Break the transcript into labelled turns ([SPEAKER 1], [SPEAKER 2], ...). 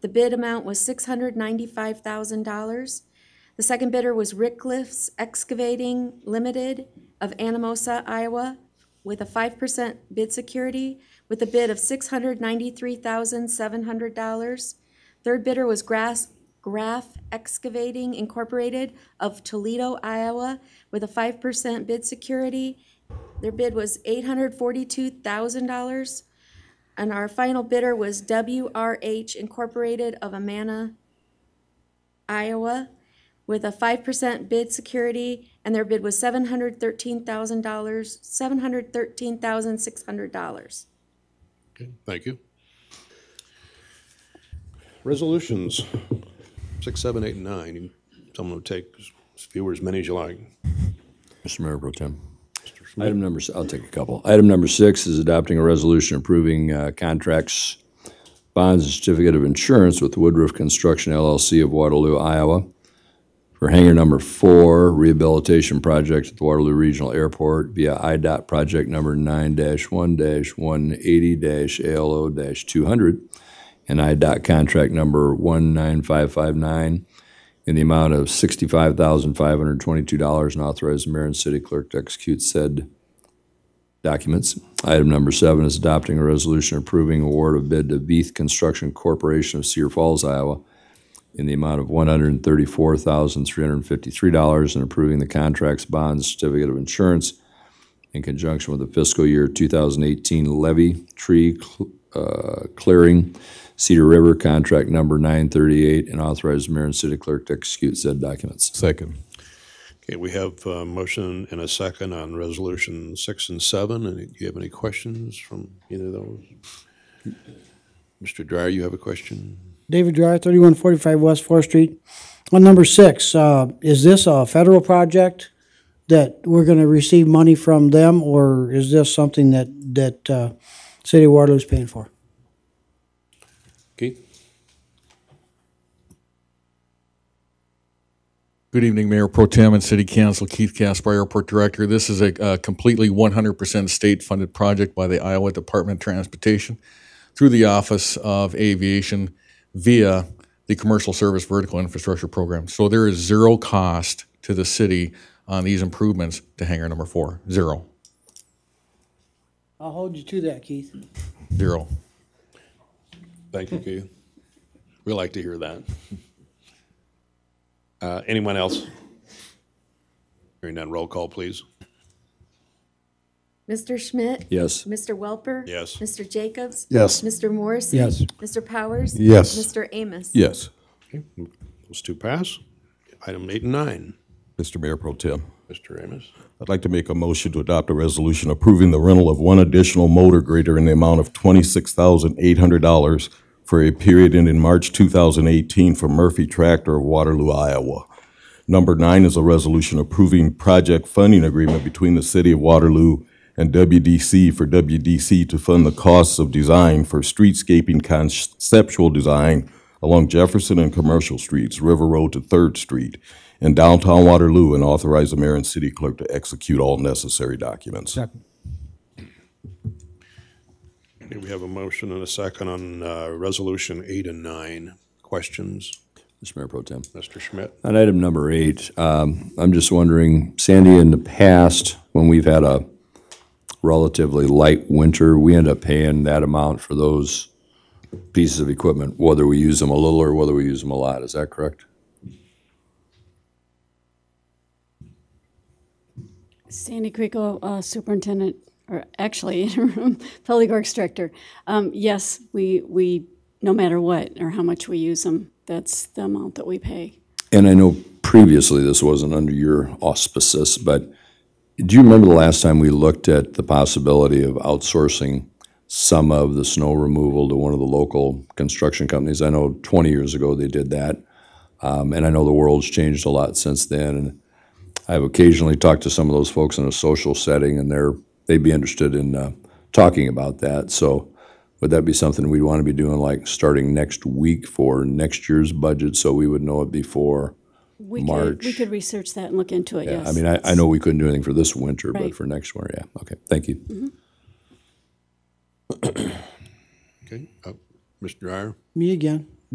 [SPEAKER 1] The bid amount was $695,000. The second bidder was Rickliffs Excavating Limited of Anamosa, Iowa, with a 5% bid security, with a bid of $693,700. Third bidder was Grass, Graph Excavating Incorporated of Toledo, Iowa, with a 5% bid security. Their bid was $842,000. And our final bidder was WRH Incorporated of Amana, Iowa, with a 5% bid security, and their bid was $713,000, $713,600.
[SPEAKER 2] Okay, thank you. Resolutions, six, seven, eight, and nine. Someone would take as few or as many as you like.
[SPEAKER 3] Mr. Mayor Pro Tem. Item number, si- I'll take a couple. Item number six is adopting a resolution approving uh, contracts, bonds, and certificate of insurance with Woodruff Construction LLC of Waterloo, Iowa for hangar number four rehabilitation project at the Waterloo Regional Airport via IDOT project number nine one one eighty ALO two hundred and IDOT contract number one nine five five nine in the amount of sixty-five thousand five hundred twenty-two dollars and authorize the mayor and city clerk to execute said documents. Item number seven is adopting a resolution approving award of bid to Beath Construction Corporation of Cedar Falls, Iowa in the amount of one hundred and thirty-four thousand three hundred and fifty-three dollars and approving the contracts, bonds, certificate of insurance in conjunction with the fiscal year two thousand eighteen levy tree cl- uh, clearing Cedar River, contract number 938, and authorize mayor and city clerk to execute said documents.
[SPEAKER 4] Second.
[SPEAKER 2] Okay, we have a motion and a second on resolution six and seven. And do you have any questions from either of those? Mr. Dryer, you have a question?
[SPEAKER 5] David Dryer, thirty-one forty-five West Fourth Street. On number six, uh, is this a federal project that we're gonna receive money from them, or is this something that, that, uh, City of Waterloo's paying for?
[SPEAKER 2] Keith?
[SPEAKER 4] Good evening, Mayor Pro Tem and City Council. Keith Casper, Airport Director. This is a uh, completely 100% state-funded project by the Iowa Department of Transportation through the Office of Aviation via the Commercial Service Vertical Infrastructure Program. So there is zero cost to the city on these improvements to hangar number four. Zero.
[SPEAKER 5] I'll hold you to that, Keith.
[SPEAKER 4] Zero.
[SPEAKER 2] Thank you, Keith. We like to hear that. Uh, Anyone else? Hearing none, roll call, please.
[SPEAKER 1] Mr. Schmidt?
[SPEAKER 3] Yes.
[SPEAKER 1] Mr. Welper?
[SPEAKER 2] Yes.
[SPEAKER 1] Mr. Jacobs?
[SPEAKER 4] Yes.
[SPEAKER 1] Mr. Morrissey?
[SPEAKER 5] Yes.
[SPEAKER 1] Mr. Powers?
[SPEAKER 4] Yes.
[SPEAKER 1] Mr. Amos?
[SPEAKER 4] Yes.
[SPEAKER 2] Those two pass. Item eight and nine,
[SPEAKER 6] Mr. Mayor Pro Tem,
[SPEAKER 2] Mr. Amos.
[SPEAKER 6] I'd like to make a motion to adopt a resolution approving the rental of one additional motor grader in the amount of twenty-six thousand eight hundred dollars for a period ending March two thousand eighteen for Murphy Tractor of Waterloo, Iowa. Number nine is a resolution approving project funding agreement between the City of Waterloo and WDC for WDC to fund the costs of design for streetscaping conceptual design along Jefferson and Commercial Streets, River Road to Third Street, in downtown Waterloo, and authorize the mayor and city clerk to execute all necessary documents.
[SPEAKER 2] Okay, We have a motion and a second on uh, Resolution 8 and 9. Questions,
[SPEAKER 3] Mr. Mayor Pro Tem.
[SPEAKER 2] Mr. Schmidt?
[SPEAKER 3] On item number eight, um, I'm just wondering, Sandy, in the past, when we've had a relatively light winter, we end up paying that amount for those pieces of equipment, whether we use them a little or whether we use them a lot. Is that correct?
[SPEAKER 7] Sandy Creco, uh, Superintendent, or actually interim Public Works Director. Um, Yes, we, we, no matter what or how much we use them, that's the amount that we pay.
[SPEAKER 3] And I know previously this wasn't under your auspices, but do you remember the last time we looked at the possibility of outsourcing some of the snow removal to one of the local construction companies? I know 20 years ago they did that. Um, and I know the world's changed a lot since then. And I've occasionally talked to some of those folks in a social setting and they're, they'd be interested in uh, talking about that. So would that be something we'd want to be doing like starting next week for next year's budget so we would know it before?
[SPEAKER 7] We could- We
[SPEAKER 3] March.
[SPEAKER 7] could research that and look into it, yes.
[SPEAKER 3] I mean, I, I know we couldn't do anything for this winter, but
[SPEAKER 7] Right.
[SPEAKER 3] for next winter, yeah. Okay, thank you.
[SPEAKER 2] Okay, uh, Mr. Dryer?
[SPEAKER 5] Me again.